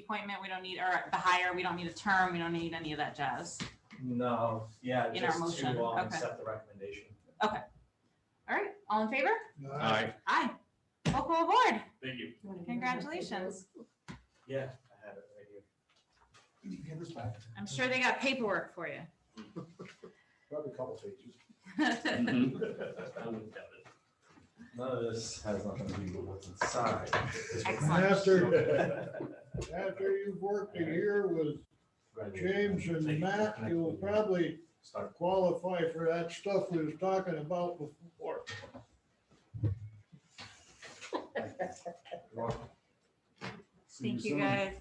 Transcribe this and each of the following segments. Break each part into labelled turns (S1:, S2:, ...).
S1: appointment, we don't need, or the hire, we don't need a term, we don't need any of that jazz.
S2: No, yeah,
S1: In our
S2: just
S1: motion,
S2: to um,
S1: okay.
S2: accept the recommendation.
S1: All right, all in favor?
S3: Aye.
S1: Aye. Welcome aboard.
S4: Thank you.
S1: Congratulations.
S2: Yeah, I have it right here.
S3: Can you hand this back?
S1: I'm sure they got paperwork for you.
S3: Probably a couple pages.
S4: I wouldn't doubt it.
S2: None of this has nothing to do with what's inside.
S1: Excellent.
S5: After, after you've worked a year with James and Matt, you'll probably
S2: Start.
S5: qualify for that stuff we was talking about before.
S1: Thank you, guys.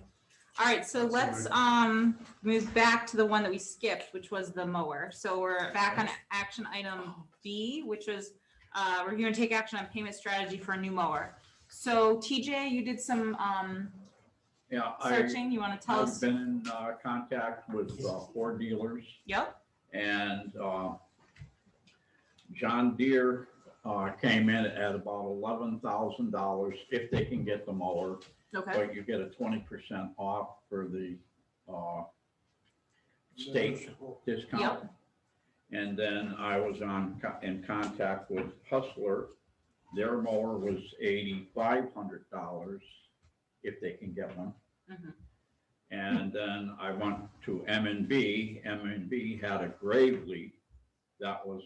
S1: All right, so let's um move back to the one that we skipped, which was the mower. So we're back on action item B, which was uh review and take action on payment strategy for a new mower. So TJ, you did some um
S6: Yeah, I,
S1: searching. You want to tell
S6: I've
S1: us?
S6: been in uh, contact with uh, Ford dealers
S1: Yep,
S6: and uh, John Deere uh, came in at about eleven thousand dollars if they can get the mower.
S1: okay.
S6: But you get a twenty percent off for the uh, state discount. And then I was on, co- in contact with Hustler. Their mower was eighty-five hundred dollars if they can get one.
S1: Mhm.
S6: And then I went to M and B. M and B had a grave leak that was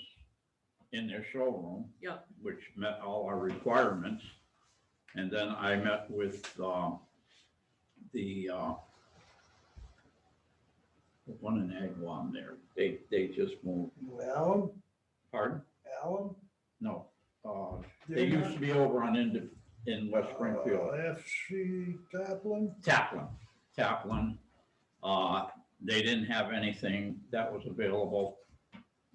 S6: in their showroom.
S1: Yep.
S6: Which met all our requirements. And then I met with, uh, the, uh, one in Agawam there. They, they just moved,
S5: Alan,
S6: pardon?
S5: Alan?
S6: No, uh, they used to be over on in, in West Springfield.
S5: FC uh, Taplin,
S6: Taplin, Taplin. Uh, they didn't have anything that was available.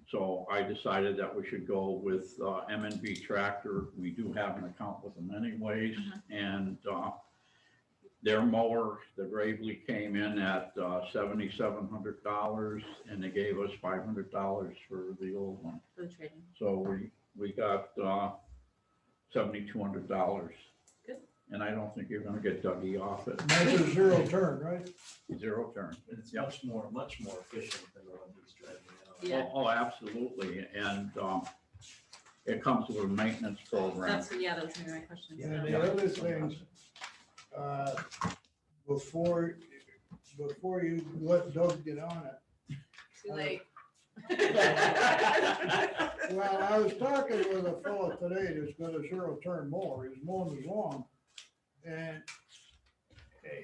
S6: So I decided that we should go with, uh, M and B Tractor. We do have an account with them anyways.
S1: Mhm.
S6: And, uh, their mower, the Gravely came in at, uh, seventy-seven hundred dollars and they gave us five hundred dollars for the old one.
S1: For the trading.
S6: So we, we got, uh, seventy-two hundred dollars.
S1: Good.
S6: And I don't think you're gonna get Dougie off it.
S5: that's a zero turn, right?
S6: Zero turn.
S2: It's
S6: Yep.
S2: much more, much more efficient than the one he's driving now.
S1: Yeah.
S6: Oh, oh, absolutely, and, um, it comes with a maintenance program.
S1: That's, yeah, that was gonna be my question.
S5: And
S1: So-
S5: the other things, uh, before, before you let Doug get on it.
S1: Too late.
S5: Well, I was talking with a fellow today that's got a zero turn mower, he's mowing his lawn, and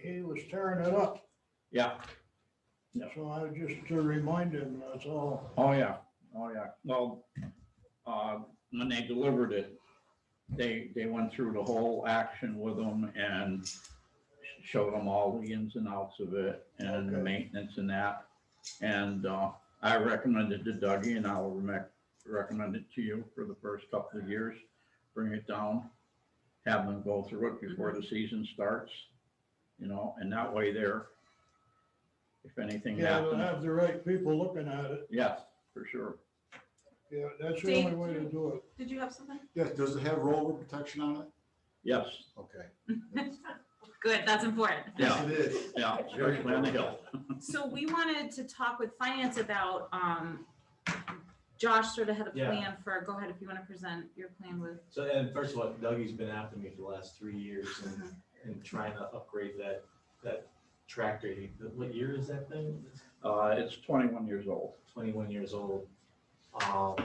S5: he was tearing it up,
S6: Yeah, Yeah.
S5: so I just to remind him, that's all.
S6: oh, yeah, oh, yeah, well, uh, when they delivered it, they, they went through the whole action with them and showed them all the ins and outs of it and the
S5: Okay.
S6: maintenance and that. And, uh, I recommended to Dougie and I'll rec- recommend it to you for the first couple of years. Bring it down, have them go through it before the season starts, you know, and that way they're, if anything
S5: Yeah, they'll
S6: happens,
S5: have the right people looking at it,
S6: yes, for sure.
S5: yeah, that's the
S1: Thank
S5: only way to
S1: you.
S5: do it.
S1: Did you have something?
S3: Yeah, does it have rollover protection on it?
S6: Yes,
S3: Okay.
S1: Good, that's important.
S6: yeah,
S3: It is.
S6: yeah, especially on the hill.
S1: So we wanted to talk with finance about, um, Josh sort of had a
S2: Yeah.
S1: plan for, go ahead if you want to present your plan with.
S2: So, and first of all, Dougie's been after me for the last three years and,
S1: Uh-huh.
S2: and trying to upgrade that, that tractor. He- What year is that thing? It's
S6: Uh, it's twenty-one years old.
S2: twenty-one years old. Um,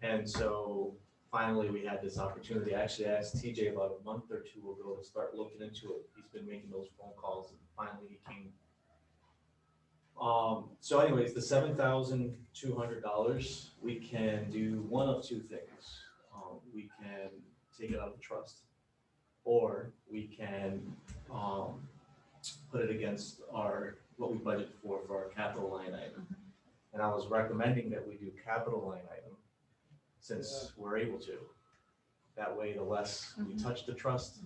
S2: and so finally we had this opportunity. I Actually, I asked TJ about a month or two ago to start looking into it. He's been making those phone calls and finally he came. Um, so anyways, the seven thousand two hundred dollars, we can do one of two things. Um, we can take it out of the trust. Or we can, um, put it against our, what we budget for, for our capital line item. And I was recommending that we do capital line item, since we're able to. That way, the less we
S1: Mhm.
S2: touch the trust,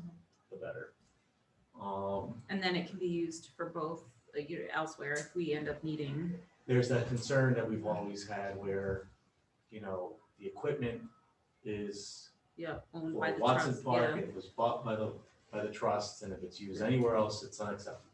S2: the better. Um,
S1: And then it can be used for both, like, you- elsewhere if we end up needing.
S2: there's that concern that we've always had where, you know, the equipment is
S1: Yeah. Owned by
S2: for
S1: the
S2: Watson
S1: trust,
S2: Park,
S1: yeah.
S2: it was bought by the, by the trust, and if it's used anywhere else, it's unacceptable.